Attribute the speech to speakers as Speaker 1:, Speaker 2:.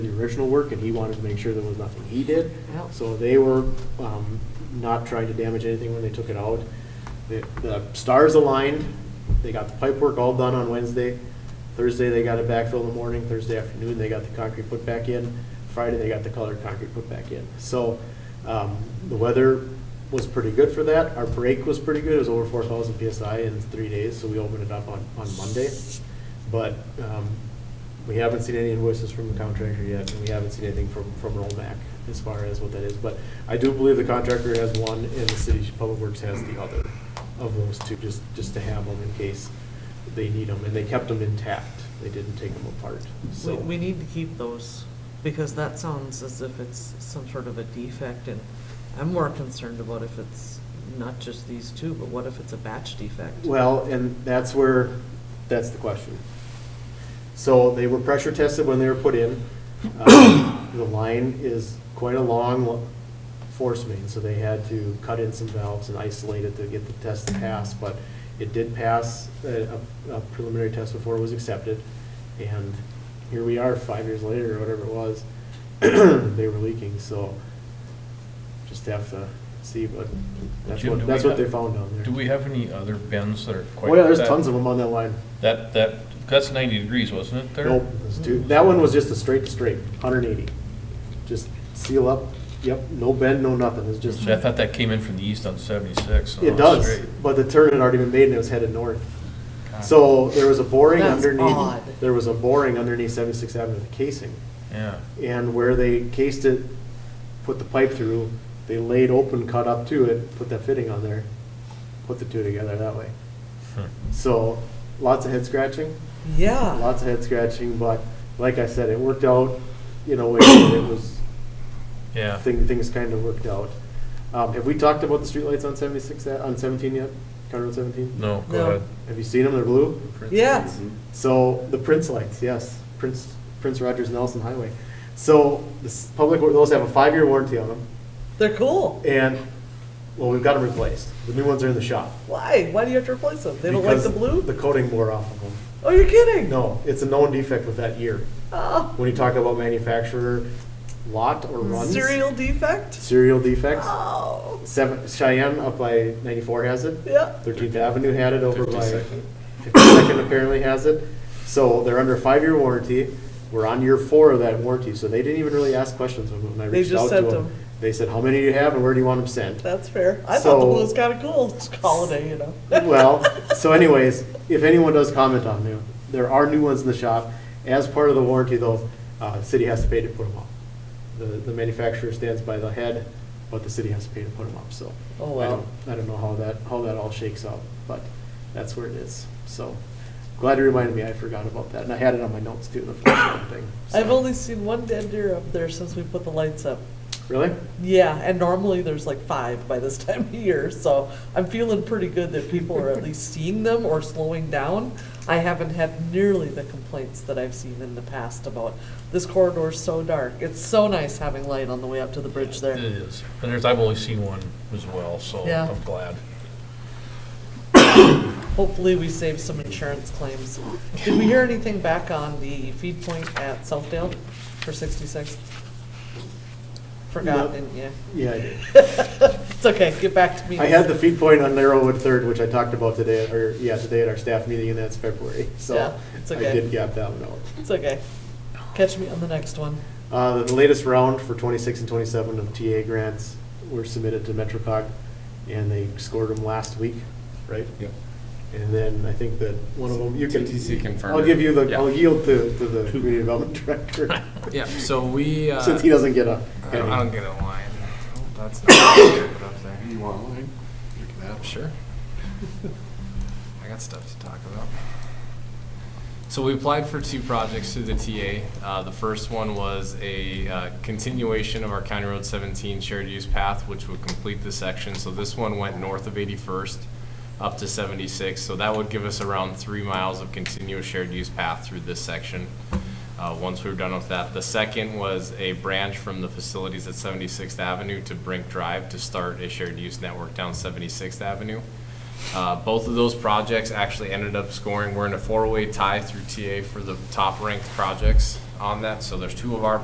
Speaker 1: the original work, and he wanted to make sure there was nothing he did.
Speaker 2: Well.
Speaker 1: So they were um, not trying to damage anything when they took it out. The- The stars aligned, they got the pipe work all done on Wednesday. Thursday, they got it backfilled in the morning, Thursday afternoon, they got the concrete put back in. Friday, they got the colored concrete put back in. So um, the weather was pretty good for that. Our break was pretty good, it was over 4,000 PSI in three days, so we opened it up on on Monday. But um, we haven't seen any invoices from the contractor yet, and we haven't seen anything from, from Rollback as far as what that is. But I do believe the contractor has one, and the city public works has the other of those two, just, just to have them in case they need them. And they kept them intact, they didn't take them apart,
Speaker 2: We,
Speaker 1: so.
Speaker 2: we need to keep those, because that sounds as if it's some sort of a defect, and I'm more concerned about if it's not just these two, but what if it's a batch defect?
Speaker 1: Well, and that's where, that's the question. So they were pressure tested when they were put in. Um, The line is quite a long lo- force main, so they had to cut in some valves and isolate it to get the test to pass. But it did pass a a- a preliminary test before it was accepted. And here we are, five years later, or whatever it was, they were leaking, so just have to see, but that's
Speaker 3: Jim, do
Speaker 1: what,
Speaker 3: we
Speaker 1: that's what
Speaker 3: have-
Speaker 1: they found down there.
Speaker 3: Do we have any other bends that are quite?
Speaker 1: Oh yeah, there's
Speaker 3: that-
Speaker 1: tons of them on that line.
Speaker 3: That, that, that's ninety degrees, wasn't it, there?
Speaker 1: Nope, there's two. That one was just a straight to straight, hundred and eighty. Just seal up, yep, no bend, no nothing, it's just,
Speaker 3: See, I thought that came in from the east on seventy-six. so
Speaker 1: it
Speaker 3: it's
Speaker 1: does,
Speaker 3: oh, straight. Ah.
Speaker 1: but the turn had already been made and it was headed north.
Speaker 3: God,
Speaker 1: So there was a boring
Speaker 2: That's
Speaker 1: underneath,
Speaker 2: odd.
Speaker 1: there was a boring underneath Seventy-Sixth Avenue, the casing.
Speaker 3: Yeah,
Speaker 1: And where they cased it, put the pipe through, they laid open, cut up to it, put that fitting on there, put the two together that way.
Speaker 3: Hmm.
Speaker 1: So lots of head scratching,
Speaker 2: Yeah,
Speaker 1: lots of head scratching, but like I said, it worked out, you know, it it was,
Speaker 3: yeah.
Speaker 1: thing, things kind of worked out. Um, have we talked about the streetlights on seventy-six, a- on seventeen yet? County Road seventeen?
Speaker 3: No,
Speaker 2: No.
Speaker 3: go
Speaker 1: Have you seen them? They're blue?
Speaker 3: ahead.
Speaker 2: yeah,
Speaker 1: So, the Prince lights, yes, Prince, Prince Rogers Nelson Highway. So, this public, wor- those have a five-year warranty on them,
Speaker 2: they're cool.
Speaker 1: and, well, we've got them replaced. The new ones are in the shop.
Speaker 2: Why? Why do you have to replace them? They don't like
Speaker 1: because
Speaker 2: the blue?
Speaker 1: The coating wore off of them.
Speaker 2: Oh, you're kidding?
Speaker 1: No, it's a known defect with that year.
Speaker 2: Oh,
Speaker 1: When you talk about manufacturer lot or runs.
Speaker 2: serial defect?
Speaker 1: Serial defects.
Speaker 2: Oh,
Speaker 1: Seven, Cheyenne up by ninety-four has it.
Speaker 2: yeah.
Speaker 1: Thirteenth Avenue had it over by,
Speaker 3: 52nd.
Speaker 1: Fifty-second apparently has it. So they're under a five-year warranty. We're on year four of that warranty, so they didn't even really ask questions when when I
Speaker 2: They
Speaker 1: reached
Speaker 2: just
Speaker 1: out to
Speaker 2: sent
Speaker 1: them.
Speaker 2: them.
Speaker 1: They said, how many do you have and where do you want them sent?
Speaker 2: That's fair. I thought the
Speaker 1: So-
Speaker 2: blue was kind of cool. It's holiday, you know.
Speaker 1: Well, so anyways, if anyone does comment on them, there are new ones in the shop. As part of the warranty though, uh, the city has to pay to put them up. The, the manufacturer stands by the head, but the city has to pay to put them up, so.
Speaker 2: Oh,
Speaker 1: I
Speaker 2: wow.
Speaker 1: don't- I don't know how that, how that all shakes out, but that's where it is, so. Glad you reminded me, I forgot about that, and I had it on my notes too, the first one thing. so.
Speaker 2: I've only seen one dead deer up there since we put the lights up.
Speaker 1: Really?
Speaker 2: Yeah, and normally there's like five by this time of year, so I'm feeling pretty good that people are at least seeing them or slowing down. I haven't had nearly the complaints that I've seen in the past about this corridor's so dark. It's so nice having light on the way up to the bridge
Speaker 3: It
Speaker 2: there.
Speaker 3: is, and there's, I've only seen one as well, so
Speaker 2: Yeah.
Speaker 3: I'm glad.
Speaker 2: Hopefully, we save some insurance claims. Did we hear anything back on the feed point at Southdale for 66? Forgot,
Speaker 1: No.
Speaker 2: didn't you?
Speaker 1: Yeah, I did.
Speaker 2: It's okay, get back to me.
Speaker 1: I had the feed point on Narrowwood Third, which I talked about today, or, yeah, today at our staff meeting, and that's February,
Speaker 2: Yeah,
Speaker 1: so.
Speaker 2: it's
Speaker 1: I
Speaker 2: okay.
Speaker 1: did gap that one out.
Speaker 2: It's okay. Catch me on the next one.
Speaker 1: Uh, The latest round for 26 and 27 of TA grants were submitted to MetroCog, and they scored them last week, right?
Speaker 4: Yep.
Speaker 1: And then I think that one of them, you can.
Speaker 4: TTC confirmed
Speaker 1: I'll
Speaker 4: it.
Speaker 1: give you the,
Speaker 4: Yeah.
Speaker 1: I'll yield to, to the community development director,
Speaker 4: Yeah, so we, uh,
Speaker 1: since he doesn't get a.
Speaker 4: I don't, I don't get a line. Oh, That's not good up there.
Speaker 5: You want one? You can have one.
Speaker 4: Sure. I got stuff to talk about. So we applied for two projects through the TA. Uh, the first one was a uh, continuation of our County Road 17 shared use path, which would complete the section. So this one went north of 81st up to 76. So that would give us around three miles of continuous shared use path through this section. Uh, once we were done with that, the second was a branch from the facilities at 76th Avenue to Brink Drive to start a shared use network down 76th Avenue. Uh, Both of those projects actually ended up scoring. We're in a four-way tie through TA for the top-ranked projects on that. So there's two of our